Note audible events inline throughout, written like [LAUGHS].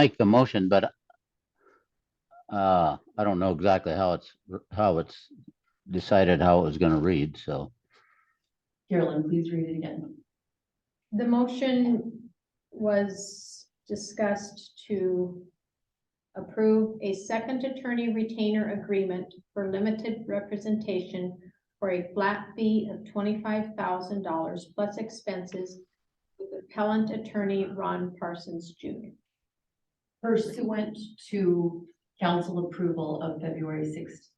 make the motion, but uh, I don't know exactly how it's, how it's decided how it was gonna read, so. Carolyn, please read it again. The motion was discussed to approve a second attorney retainer agreement for limited representation for a flat fee of twenty-five thousand dollars plus expenses with appellant attorney Ron Parsons Jr. Pursuant to council approval of February sixth,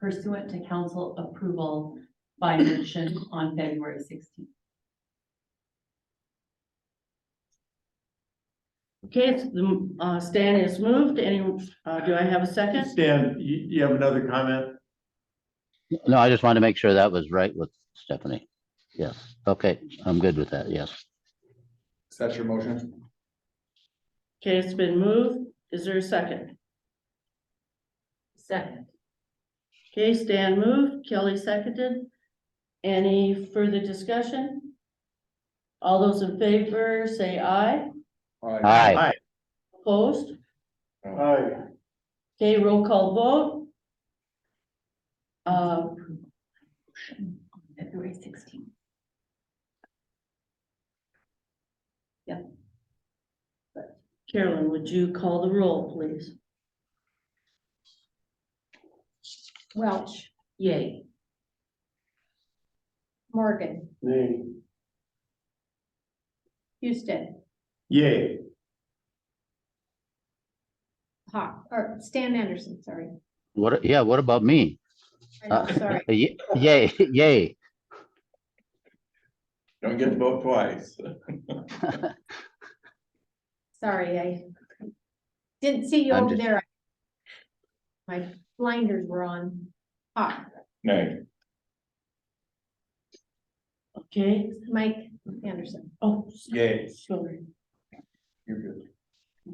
pursuant to council approval by motion on February sixteenth. Okay, it's, the, uh, Stan is moved. Any, uh, do I have a second? Stan, you, you have another comment? No, I just wanted to make sure that was right with Stephanie. Yes, okay, I'm good with that, yes. Is that your motion? Okay, it's been moved. Is there a second? Second. Okay, Stan moved, Kelly seconded. Any further discussion? All those in favor, say aye. Aye. Opposed? Aye. Okay, roll call vote. Uh, February sixteenth. Carolyn, would you call the roll, please? Welch, Yay. Morgan, Nay. Houston, Yay. Hawk, or Stan Anderson, sorry. What, yeah, what about me? Uh, I know, Sorry, Ye- Yay, [LAUGHS] yay. Don't get to vote twice. sorry, I didn't see you I'm over just- there. My blinders were on. Ah, Hawk, Nay. Okay, Mike Anderson. oh, Yay. sorry. You're good.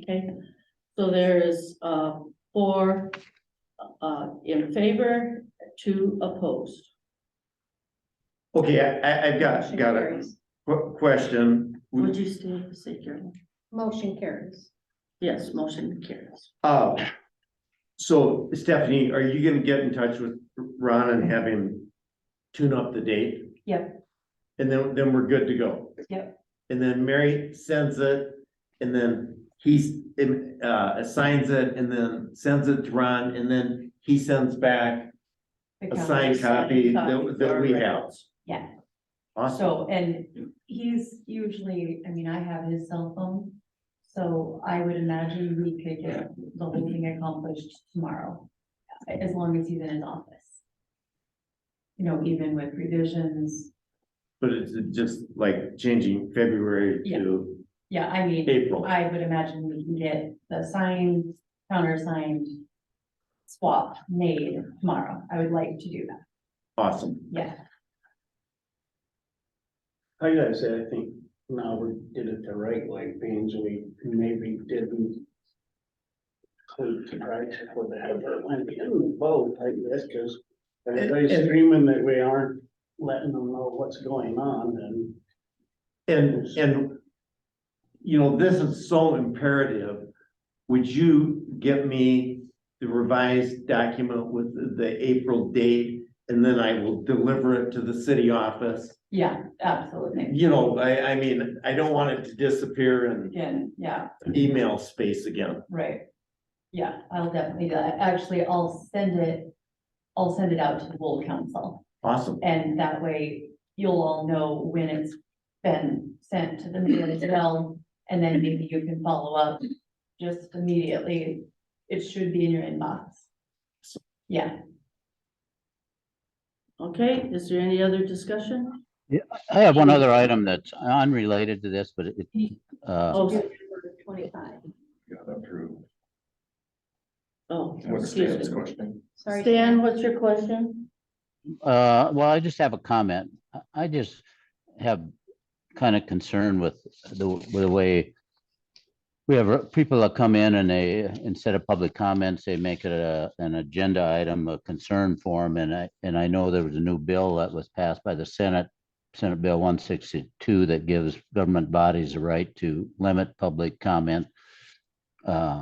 Okay, so there is, uh, four, uh, in favor, two opposed. Okay, I, I, I've got, Motion got a carries. qu- question. Would you stay, say, Carolyn? Motion carries. Yes, motion carries. Uh, so Stephanie, are you gonna get in touch with Ron and have him tune up the date? Yep. And then, then we're good to go. Yep. And then Mary sends it, and then he's, um, uh, assigns it, and then sends it to Ron, and then he sends back a signed copy that, that we have. Yeah. Awesome. So, and he's usually, I mean, I have his cell phone, so I would imagine we could get the whole thing accomplished tomorrow, as long as he's in his office. You know, even with revisions, But it's just like changing February Yeah. to yeah, I mean, April. I would imagine we can get the signed, countersigned swap made tomorrow. I would like to do that, Awesome. yeah. I gotta say, I think now we did it the right way, being we maybe didn't. Include the price for the Heather Olympian vote, I guess, cause everybody's And- and- screaming that we aren't letting them know what's going on and. And, and, you know, this is so imperative. Would you get me the revised document with the- the April date? And then I will deliver it to the city office. Yeah, absolutely. You know, I, I mean, I don't want it to disappear in Again, yeah. email space again. Right. Yeah, I'll definitely do that. Actually, I'll send it, I'll send it out to the whole council. Awesome. And that way you'll all know when it's been sent to the meeting as well. And then maybe you can follow up just immediately. It should be in your inbox. Yeah, Okay, is there any other discussion? I have one other item that's unrelated to this, but it, uh, Oh, Twenty-five. Got approved. oh, What's excuse Stan's me. question? Sorry. Stan, what's your question? uh, well, I just have a comment. I- I just have kind of concern with the, with the way we have uh, people that come in and they, instead of public comments, they make it a, an agenda item, a concern form. And I, and I know there was a new bill that was passed by the Senate, Senate Bill one sixty-two that gives government bodies the right to limit public comment uh,